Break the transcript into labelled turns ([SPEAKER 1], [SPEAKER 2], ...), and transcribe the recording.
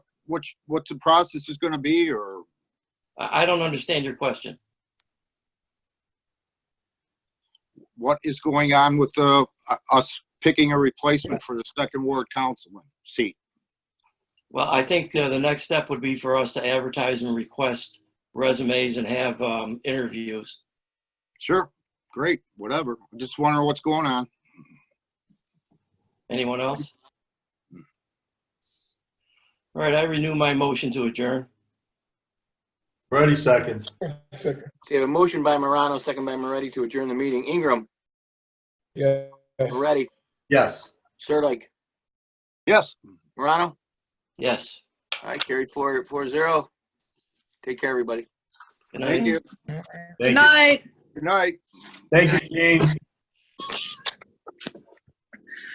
[SPEAKER 1] what's, what's the process is gonna be, or,
[SPEAKER 2] I, I don't understand your question.
[SPEAKER 1] what is going on with the, uh, us picking a replacement for the second ward councilman seat?
[SPEAKER 2] Well, I think uh, the next step would be for us to advertise and request resumes and have um, interviews.
[SPEAKER 1] Sure, great, whatever. Just wondering what's going on.
[SPEAKER 2] Anyone else?
[SPEAKER 1] Hmm.
[SPEAKER 2] All right, I renew my motion to adjourn.
[SPEAKER 3] Ready seconds.
[SPEAKER 4] Second,
[SPEAKER 5] So you have a motion by Morano, second by Moretti to adjourn the meeting. Ingram,
[SPEAKER 4] yeah.
[SPEAKER 5] Moretti,
[SPEAKER 3] Yes.
[SPEAKER 5] Sirdike,
[SPEAKER 1] Yes,
[SPEAKER 5] Morano.
[SPEAKER 2] Yes.
[SPEAKER 5] All right, carried four, four zero. Take care, everybody.
[SPEAKER 2] Good night.
[SPEAKER 1] thank you.
[SPEAKER 3] Thank you.
[SPEAKER 6] night.
[SPEAKER 1] Good night.
[SPEAKER 3] Thank you, Gene.